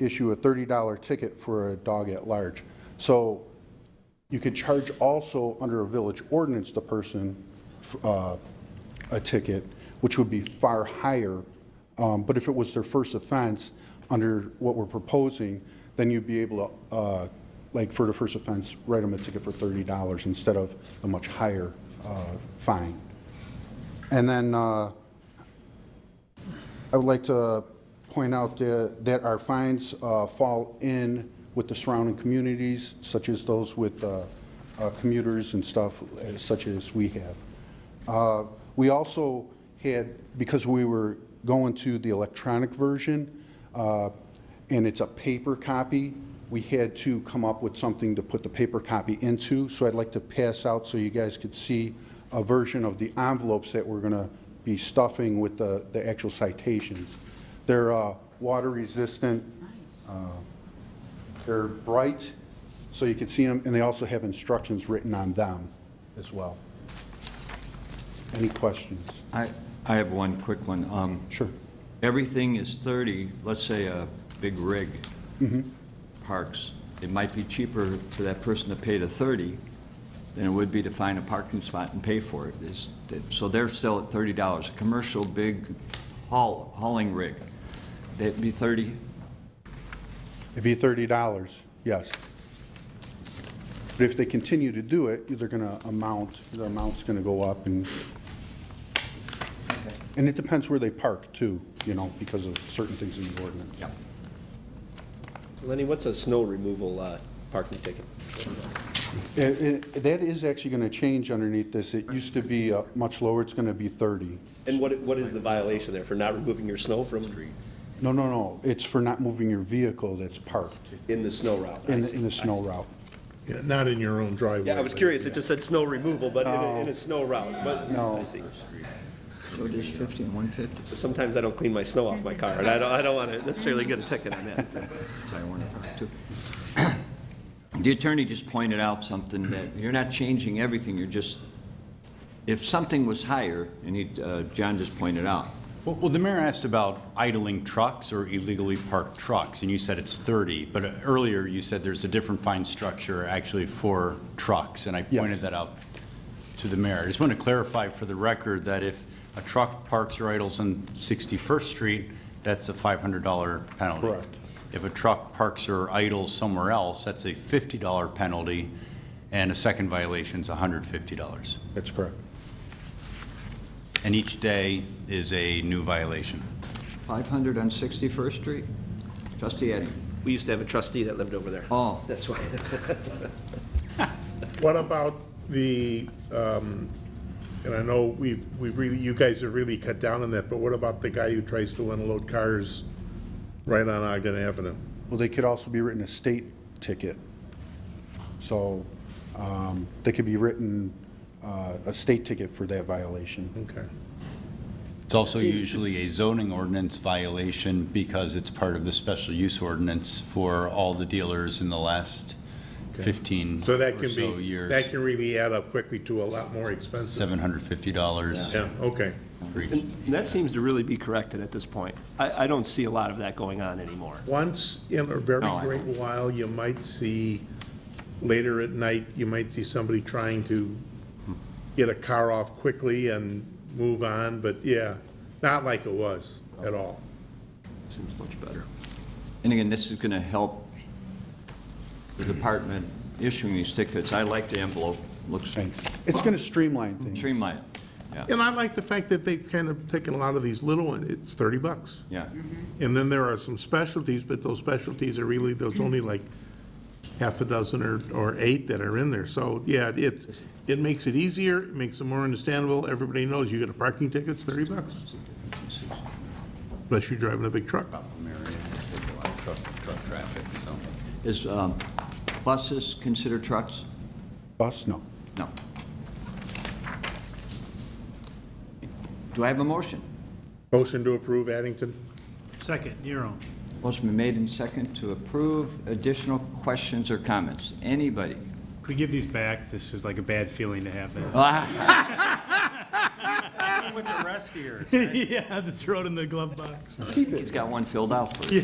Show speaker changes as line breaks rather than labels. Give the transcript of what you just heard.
issue a $30 ticket for a dog at large. So you could charge also under a village ordinance the person f- uh, a ticket, which would be far higher. Um, But if it was their first offense, under what we're proposing, then you'd be able to, uh, like for the first offense, write them a ticket for $30 instead of a much higher uh, fine. And then uh, I would like to point out the- that our fines uh, fall in with the surrounding communities, such as those with uh, uh, commuters and stuff, uh, such as we have. Uh, We also had, because we were going to the electronic version, uh, and it's a paper copy, we had to come up with something to put the paper copy into, so I'd like to pass out so you guys could see a version of the envelopes that we're going to be stuffing with the, the actual citations. They're uh, water resistant. uh, They're bright, so you can see them, and they also have instructions written on them as well. Any questions?
I, I have one quick one. Um,
Sure.
Everything is 30, let's say a big rig parks. It might be cheaper for that person to pay the 30 than it would be to find a parking spot and pay for it. Is- So they're still at $30. A commercial big haul, hauling rig, that'd be 30?
It'd be thirty dollars, yes. But if they continue to do it, they're gonna amount, the amount's gonna go up and, and it depends where they park too, you know, because of certain things in the ordinance.
Yep.
Lenny, what's a snow removal uh, parking ticket?
It- it- that is actually gonna change underneath this. It used to be uh, much lower, it's gonna be thirty.
And what, what is the violation there for not removing your snow from,
No, no, no, it's for not moving your vehicle that's parked
in the snow route?
in, the- in the snow route.
Yeah, not in your own driveway.
Yeah, I was
but-
curious, it just said snow removal, but in a,
Oh.
in a snow route, but I see.
So it is 50 and 150.
But Sometimes I don't clean my snow off my car, and I don't, I don't want to necessarily get a ticket on that, so.
I want to talk to. The attorney just pointed out something that you're not changing everything, you're just, if something was higher, and he, uh, John just pointed out,
Well- Well, the mayor asked about idling trucks or illegally parked trucks, and you said it's 30, but earlier you said there's a different fine structure actually for trucks, and I
Yes.
pointed that out to the mayor. I just want to clarify for the record that if a truck parks or idles on 61st Street, that's a $500 penalty.
Correct.
If a truck parks or idles somewhere else, that's a $50 penalty, and a second violation's $150.
That's correct.
And each day is a new violation.
500 on 61st Street? Trustee Eddie?
We used to have a trustee that lived over there.
Oh.
That's why.
What about the, um, and I know we've, we really, you guys have really cut down on that, but what about the guy who tries to unload cars right on Ogden Avenue?
Well, they could also be written a state ticket. So um, they could be written uh, a state ticket for that violation.
Okay.
It's also usually a zoning ordinance violation because it's part of the special use ordinance for all the dealers in the last 15
So that
or
can
so
be, that
years.
can really add up quickly to a lot more expensive.
$750
Yeah, okay.
for each.
And that seems to really be corrected at this point. I, I don't see a lot of that going on anymore.
Once in a very
No, I
great while, you might see, later at night, you might see somebody trying to get a car off quickly and move on, but yeah, not like it was at all.
Seems much better. And again, this is going to help the department issuing these tickets. I like the envelope, looks
It's going to streamline things.
streamlined, yeah,
And I like the fact that they've kind of taken a lot of these little, ones. it's thirty bucks.
yeah.
And then there are some specialties, but those specialties are really, there's only like half a dozen or, or eight that are in there. So, yeah, it, it makes it easier, it makes it more understandable. Everybody knows you get a parking ticket, it's thirty bucks. Unless you're driving a big truck.
Truck traffic, so.
Is um, buses considered trucks?
Bus, no.
No. Do I have a motion?
Motion to approve Addington?
Second, Nero.
Motion been made and second to approve. Additional questions or comments? Anybody?
Could we give these back? This is like a bad feeling to have that.
Ah,
With the rest here. Yeah, just throw it in the glove box.
He's got one filled out for you.